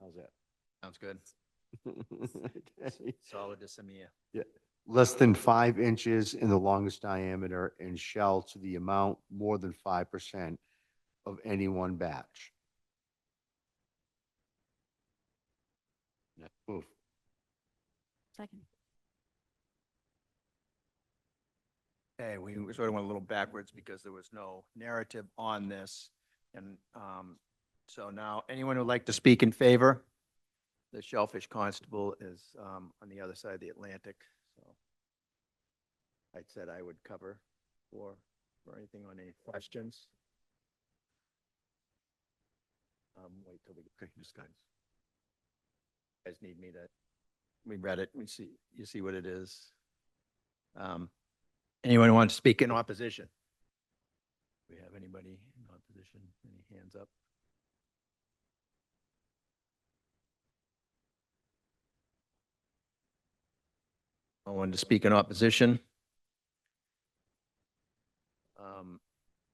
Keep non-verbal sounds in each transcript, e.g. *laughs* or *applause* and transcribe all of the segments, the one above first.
How's Sounds good. that? Okay. Solid to Samia. *laughs* Less than five inches in the longest diameter and shell to the amount more than five percent of any one batch. Next move. Second. Hey, we we sort of went a little backwards because there was no narrative on this. And um, so now, anyone who'd like to speak in favor? The Shellfish Constable is um, on the other side of the Atlantic, so. I said I would cover for, for anything on any questions. Um, wait till we. Okay, just guys. Guys need me to, we read it, we see, you see what it is. Um, Anyone want to speak in opposition? We have anybody in opposition? Any hands up? No one to speak in opposition? Um,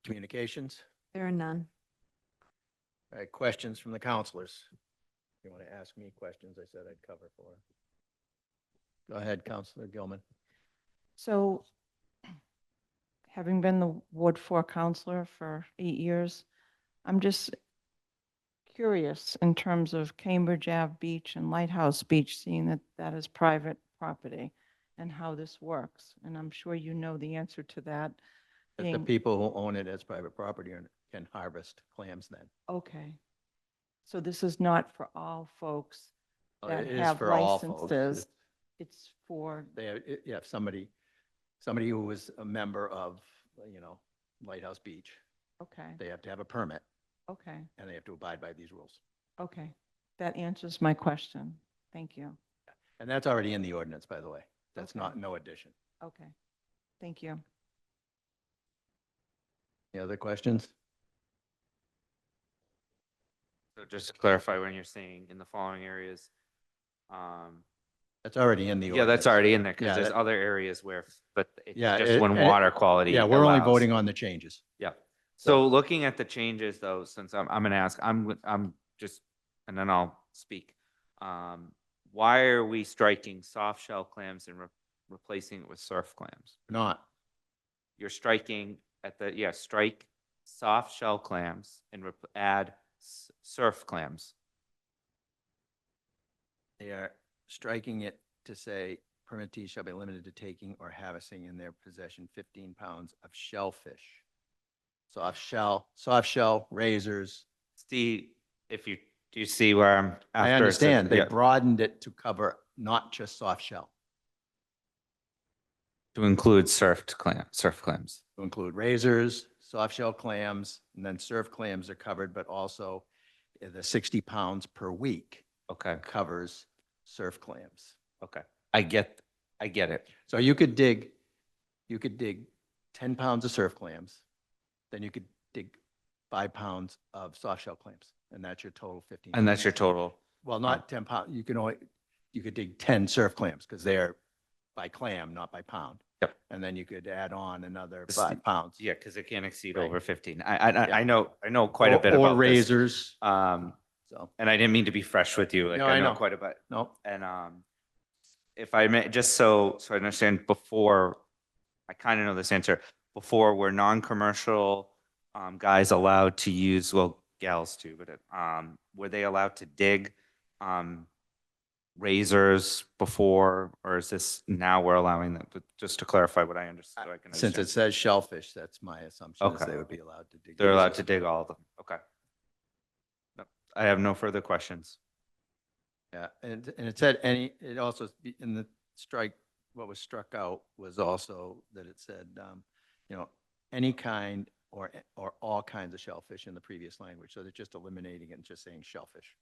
Communications? There are none. All right, questions from the counselors? If you want to ask me questions, I said I'd cover for. Go ahead, Counselor Gilman. So having been the Ward Four counselor for eight years, I'm just curious in terms of Cambridge Ave Beach and Lighthouse Beach, seeing that that is private property and how this works. And I'm sure you know the answer to that. That the being- people who own it as private property and can harvest clams then. Okay. So this is not for all folks. Uh, That it is have for all folks. licenses. It's for, They, i- yeah, if somebody, somebody who was a member of, you know, Lighthouse Beach, okay, they have to have a permit okay, and they have to abide by these rules. okay. That answers my question. Thank you. And that's already in the ordinance, by the way. That's Okay. not, no addition. Okay. Thank you. Any other questions? So just to clarify, when you're saying in the following areas, um, That's already in the yeah, ordinance. that's already in there Yeah, because there's that- other areas where, but it's Yeah, just it- when it- water quality. Yeah, we're only allows. voting on the changes. So looking at the changes though, since I'm, I'm gonna ask, I'm, w- I'm just, and then I'll speak. Um, why are we striking soft shell clams and re- replacing it with surf clams? Not, You're striking at the, yeah, strike soft shell clams and rep- add s- surf clams. they are striking it to say permittees shall be limited to taking or harvesting in their possession fifteen pounds of shellfish. Soft shell, soft shell, razors, See, if you, do you see where I'm? I after it's a- understand. They yeah. broadened it to cover not just soft shell, To include surfed clam, surf clams. to include razors, soft shell clams, and then surf clams are covered, but also uh, the 60 pounds per week Okay, covers surf clams. okay. I get, I get it. So you could dig, you could dig 10 pounds of surf clams, then you could dig five pounds of soft shell clams, and that's your total 15. And that's your pounds. total. Well, not 10 pound, you can only, you could dig 10 surf clams because they're by clam, not by pound. Yep. And then you could add on another This- five pounds. Yeah, because it can't exceed Right. over fifteen. I, I, Yeah. I know, I know quite a Or- bit about Or this. razors. Um, So, and I didn't mean to be fresh with you. Like, No, I I know. know quite a bit. no, And, um, if I may, just so, so I understand before, I kind of know this answer. Before, were non-commercial, um, guys allowed to use, well, gals too, but, um, were they allowed to dig, um, razors before, or is this now we're allowing them? But Just to clarify what I understood, I can since it understand. says shellfish, that's my assumption is Okay. they would be allowed to dig. They're allowed razors. to dig all of them. Okay. No, I have no further questions. Yeah, and, and it said any, it also, be- in the strike, what was struck out was also that it said, um, you know, any kind or, or all kinds of shellfish in the previous language. So they're just eliminating it and just saying shellfish.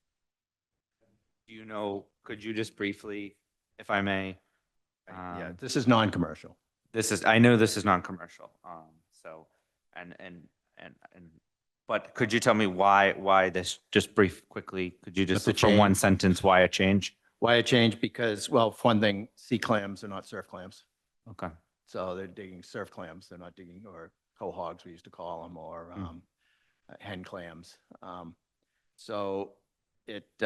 Do you know, could you just briefly, if I may? Yeah, um, this is non-commercial. this is, I know this is non-commercial, um, so, and, and, and, and, but could you tell me why, why this, just brief, quickly, could you just, the for one change. sentence, why a change? Why it changed? Because, well, for one thing, sea clams are not surf clams. Okay, So they're digging surf clams. They're not digging, or cohogs, we used to call them, or Mm. um, hen clams. Um, So it,